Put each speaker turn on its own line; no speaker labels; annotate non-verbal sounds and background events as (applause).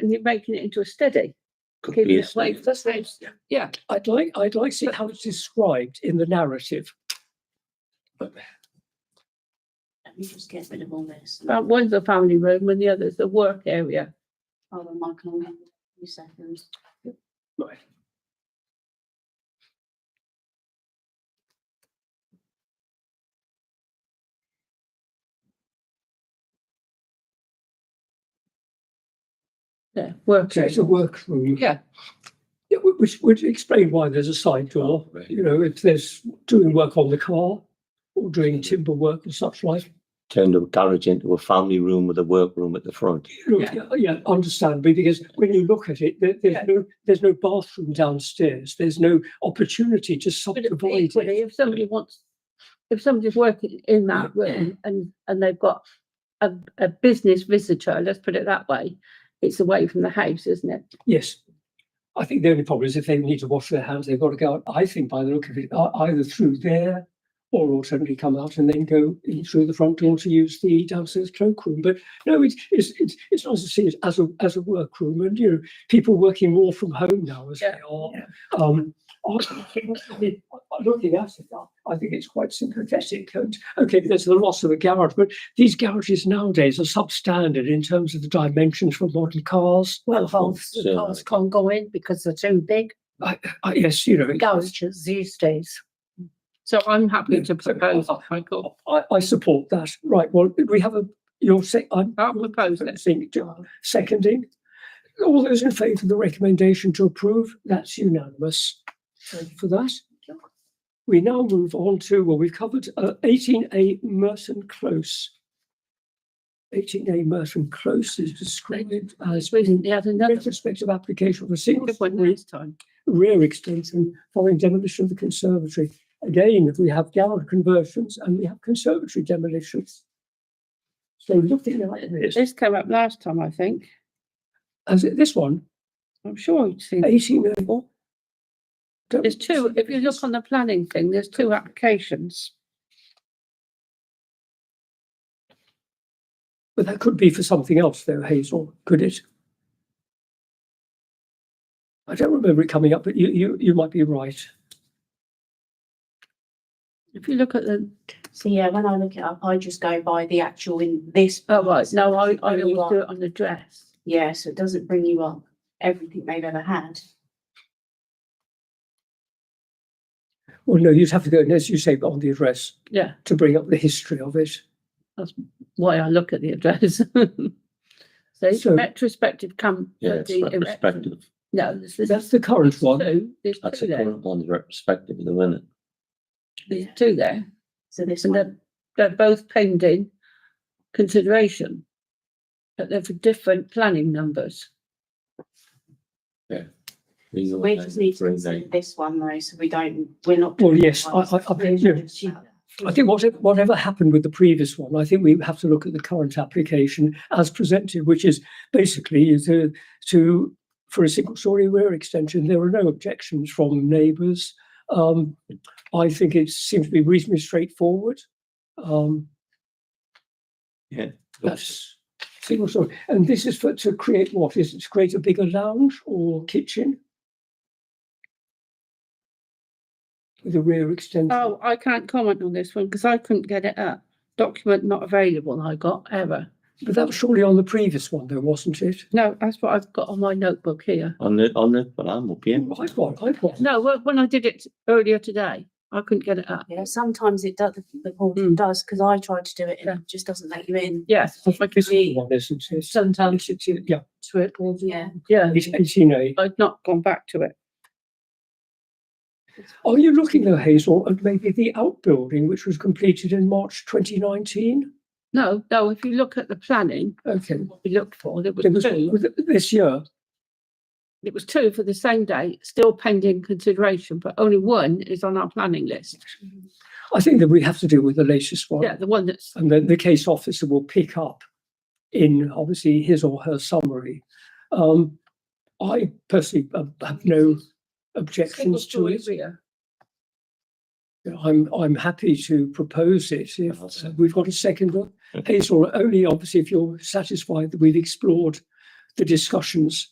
and you're making it into a study.
Could
keeping
be a
it away
snake.
from
That's it.
house.
Yeah, I'd like, I'd like to see how it's described in the narrative.
Let me just get rid of all this.
Well, One's the family room and the other's the work area.
Hold on, Michael, I'll get a few seconds.
Right.
Yeah, work
So
area.
it's a workroom.
Yeah.
Yeah, wh- which would explain why there's a side door,
Oh, right.
you know, if there's doing work on the car or
Mm-hmm.
doing timber work and such like.
Turned a garage into a family room with a workroom at the front.
Look,
Yeah.
yeah, yeah, understandably, because when you look at it, there, there's
Yeah.
no, there's no bathroom downstairs. There's no opportunity to
But it-
subdivide it.
equally, if somebody wants, if somebody's working in that room and, and they've got a, a business visitor, let's put it that way, it's away from the house, isn't it?
Yes. I think the only problem is if they need to wash their hands, they've got to go out, I think by the look of it, e- either through there or alternatively come out and then go in through the front door to use the downstairs cloakroom. But no, it's it's it's it's nice to see it as a as a workroom and you know, people working more from home now as
Yeah,
they are. Um I think- I mean, looking at it now, I think it's quite sympathetic and okay, there's the loss of a garage, but these garages nowadays are substandard in terms of the dimensions for modern cars.
Well,
holes-
holes,
so- holes
can't go in because they're too big.
I Ah, yes, you know. it's-
Garages these days.
So I'm happy
Yeah,
to
so-
propose, that, Michael.
I, I support that. Right, well, we have a, you're saying, I'm
I'll propose it.
proposing, John, seconding. All those in favour of the recommendation to approve, that's unanimous. Thank you for that. We now move on to, well, we've covered uh, eighteen A Merton Close. Eighteen A Merton Close is described as
Recently had another
retrospective application for a single
good one
story
last time.
rear extension following demolition of the conservatory. Again, we have gallery conversions and we have conservatory demolitions. So looking at this,
This came up last time, I think.
as it- this one,
I'm sure you've seen. it.
eighteen oh four.
There's two, if you look on the planning thing, there's two applications.
But that could be for something else though, Hazel, could it? I don't remember it coming up, but you, you, you might be right.
If you look at the,
So yeah, when I look it up, I just go by the actual in this.
oh, right, no, I,
Doesn't
I
bring you
always do
up.
it on the dress.
Yeah, so it doesn't bring you up everything they've ever had.
Well, no, you'd have to go, and as you say, on the address
Yeah,
to bring up the history of it.
why I look at the address. (laughs) So
So-
retrospective come. uh,
Yeah, it's
the erection-
retrospective.
No, this this is
That's the current one.
two, there's
That's
two
a
there,
current one, retrospective at the minute.
there's two there.
So this
And
one,
then- They're both pending consideration. But they're for different planning numbers.
These are
we
the
just need to
three
consider
names.
this one though, so we don't, we're not.
Well, yes, I- I- I-
We're
yeah.
just-
I think whatever, whatever happened with the previous one, I think we have to look at the current application as presented, which is basically to, to, for a single story rear extension, there are no objections from neighbours. Um, I think it seems to be reasonably straightforward. Um,
Yeah.
That's single story. And this is for, to create what? Is it to create a bigger lounge or kitchen? With a rear extension?
Oh, I can't comment on this one because I couldn't get it up. Document not available, I got error.
But that was surely on the previous one, though, wasn't it?
No, that's what I've got on my notebook here.
On the, on the, but I'm up here.
I've got, I've got.
No, wh- when I did it earlier today, I couldn't get it up.
Yeah, sometimes it does, the
Mm.
portal does, because I tried to do it
Yeah.
and it just doesn't let you in.
Yes, I could
This
see,
one, isn't it?
Sometimes
It's- it's- Yeah,
to it will be.
Yeah.
yeah,
it's eighteen A.
I'd not gone back to it.
Are you looking though, Hazel, at maybe the outbuilding which was completed in March twenty nineteen?
No, no, if you look at the planning,
Okay.
what we looked for, there was
It was,
two,
was it this year,
it was two for the same date, still pending consideration, but only one is on our planning list.
I think that we have to deal with the latest one.
Yeah, the one that's,
And then the case officer will pick up in obviously his or her summary. Um, I personally uh, have no
single
objections to
story
it.
rear.
I'm, I'm happy to propose it if
I'll
uh, we've got a second. one. Hazel, only obviously if you're satisfied that we've explored the discussions